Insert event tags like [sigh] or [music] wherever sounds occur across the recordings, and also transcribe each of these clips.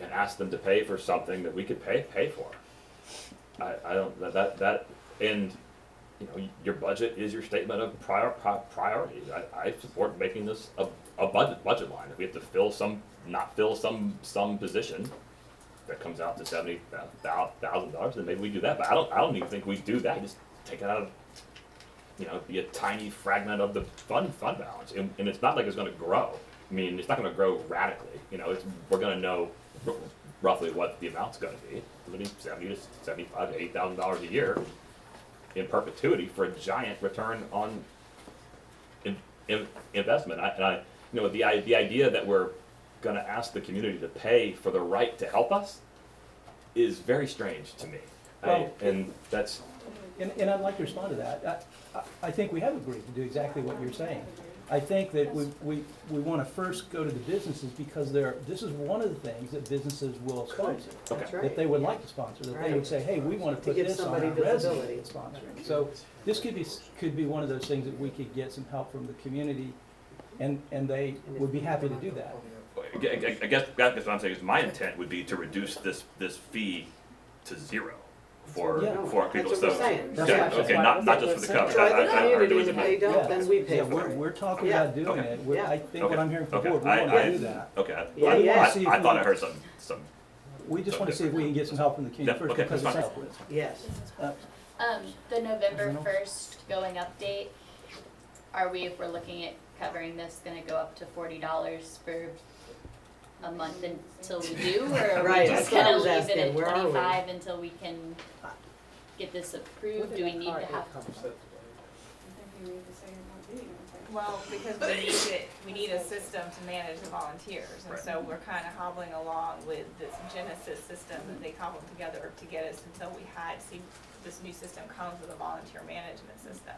and ask them to pay for something that we could pay pay for. I, I don't that that, that and you know your budget is your statement of prior, pri- priorities. I, I support making this a, a budget budget line. If we have to fill some not fill some some position that comes out to seventy uh, thousand dollars, then maybe we do that. But I don't I don't even think we do that. Just take it out of you know, be a tiny fragment of the fund fund balance, and, and it's not like it's going to grow. I mean, it's not going to grow radically. You know, it's we're going to know r- roughly what the amount's going to be, literally seventy to seventy-five to eight thousand dollars a year in perpetuity for a giant return on in, in, investment. I, and I, you know, the i- the idea that we're going to ask the community to pay for the right to help us is very strange to me. I- Well- and that's And, and I'd like to respond to that. I, I- I think we have agreed to do exactly what you're saying. I think that we, we, we wanna first go to the businesses because they're, this is one of the things that businesses will sponsor. That's Okay. right. That they would like to sponsor, that they would say, hey, we wanna To put give this on somebody our resume visibility. that's sponsoring. So this could be, s- could be one of those things that we could get some help from the community and, and they would be happy to do that. I gue- I gue- I guess that's what I'm saying is my intent would be to reduce this, this fee to zero for, Yeah. for people, That's so. what we're saying. yeah, That's why- that's Okay, why not, I not was just like, for the we're county, Try I, the I, I heard it community was. and if they in- don't, Yeah. then we pay Yeah, for we're, it. we're talking Yeah. about doing Okay. it. We're- I Yeah. think what I'm hearing from the Okay, board, we I- wanna I- do that. Okay, I, Yeah, I- yeah. See if I we- thought I heard some, some, We just wanna see if we can get some help from the yeah, community first okay, because that's it's fine. helpful. Yes. Uh, Um, the November Anything first going update, are we, if we're looking at covering this, gonna go up to forty dollars for a month until we do, or are we Right, just that's what I gonna was leave it asking, at where are we? twenty-five until we can get this approved? Do we need to have? Well, because we need it, we need a system to manage the volunteers, and Right. so we're kinda hobbling along with this Genesis system that they cobbled together to get us until we had, see, this new system comes with a volunteer management system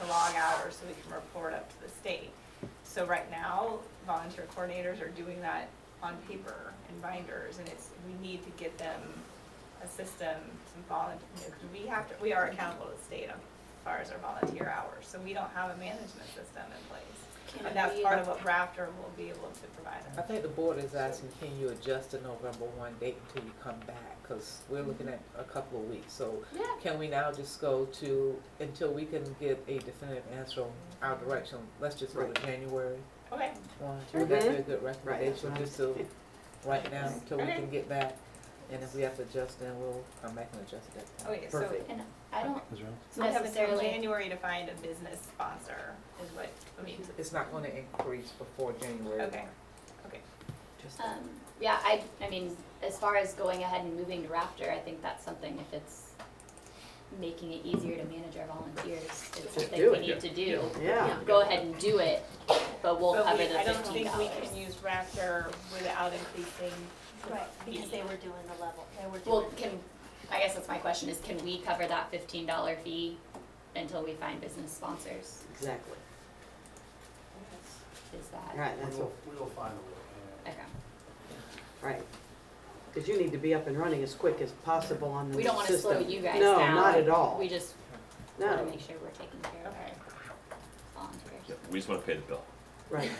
to log hours so we can report up to the state. So right now, volunteer coordinators are doing that on paper and binders, and it's, we need to get them a system, some volunteer, we have to, we are accountable to the state on as far as our volunteer hours, so we don't have a management system in place. Can And that's we- part of what Raptor will be able to provide I us. think the board is asking, can you adjust the November one date until you come back? Because we're looking at a couple of weeks, so Yeah. can we now just go to, until we can get a definitive answer on our direction, let's just go to January Okay, one? Would that Mm-hmm. be a Right, that's good recommendation, what I'm just to, saying. right now, until we Okay. can get back? And if we have to adjust, then we'll come back and adjust at that time. okay, so, Perfect. And I don't is there- so we have until necessarily, January to find a business sponsor is what, I mean, It's not gonna increase before January one. okay, okay. um, yeah, I, I mean, as far as going ahead and moving to Raptor, I think that's something if it's making it easier to manage our volunteers, it's something do we it, need to do. Yeah. go ahead and do it, but we'll But cover we, the I don't fifteen think we dollars. can use Raptor without increasing Right, because they the were doing the level, they were Well, doing. can, I guess that's my question, is can we cover that fifteen dollar fee until we find business sponsors? Exactly. Is that, Right, that's what, We will find a way. okay. right. Because you need to be up and running as quick as possible on the We don't wanna slow system. you guys No, down. not at all. We just wanna No, make sure we're taking care of Okay. our volunteers. we just wanna pay the bill. right,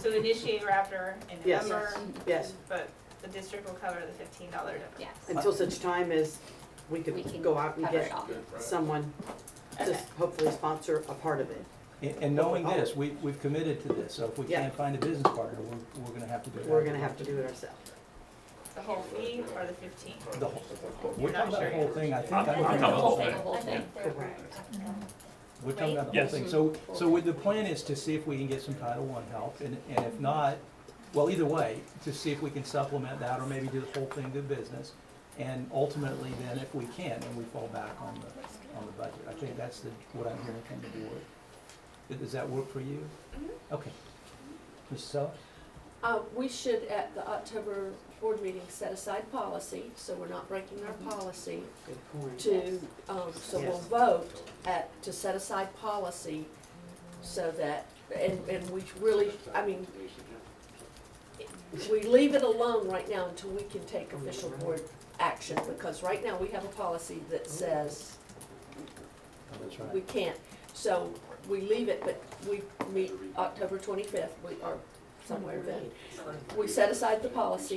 So initiate Raptor in Yes. November, [laughs] yes. but the district will cover the fifteen dollar difference. Yes, Until such time as we we could can go out and cover it get all. someone to Okay. hopefully sponsor a part of it. And, and knowing this, we, we've committed to this, so if we Yeah. can't find a business partner, we're, we're gonna have to do it. We're gonna have to do it ourselves. The whole fee or the fifteen? The whole, You're we're not talking about the sure whole thing, I think. I'm- I I'm talking would think- about the whole Mm-hmm. thing. I whole thing. think they're Correct. right. We're talking about the whole Yes. thing, so, so with the plan is to see if we can get some Title I help, and, and if not, well, either way, to see if we can supplement that, or maybe do the whole thing to business. And ultimately, then, if we can, then we fall back on the, on the budget, I think that's the, what I'm hearing from the board. Does- Does that work for you? Okay. Ms. Sella? Uh, we should, at the October board meeting, set aside policy, so we're not breaking our policy Good point. to, um, so we'll Yes. vote at, to set aside policy so that, and, and we really, I mean, we leave it alone right now until we can take official board action, because right now we have a policy that says Oh, that's we right. can't. So we leave it, but we meet October twenty-fifth, we are somewhere then. We set aside the policy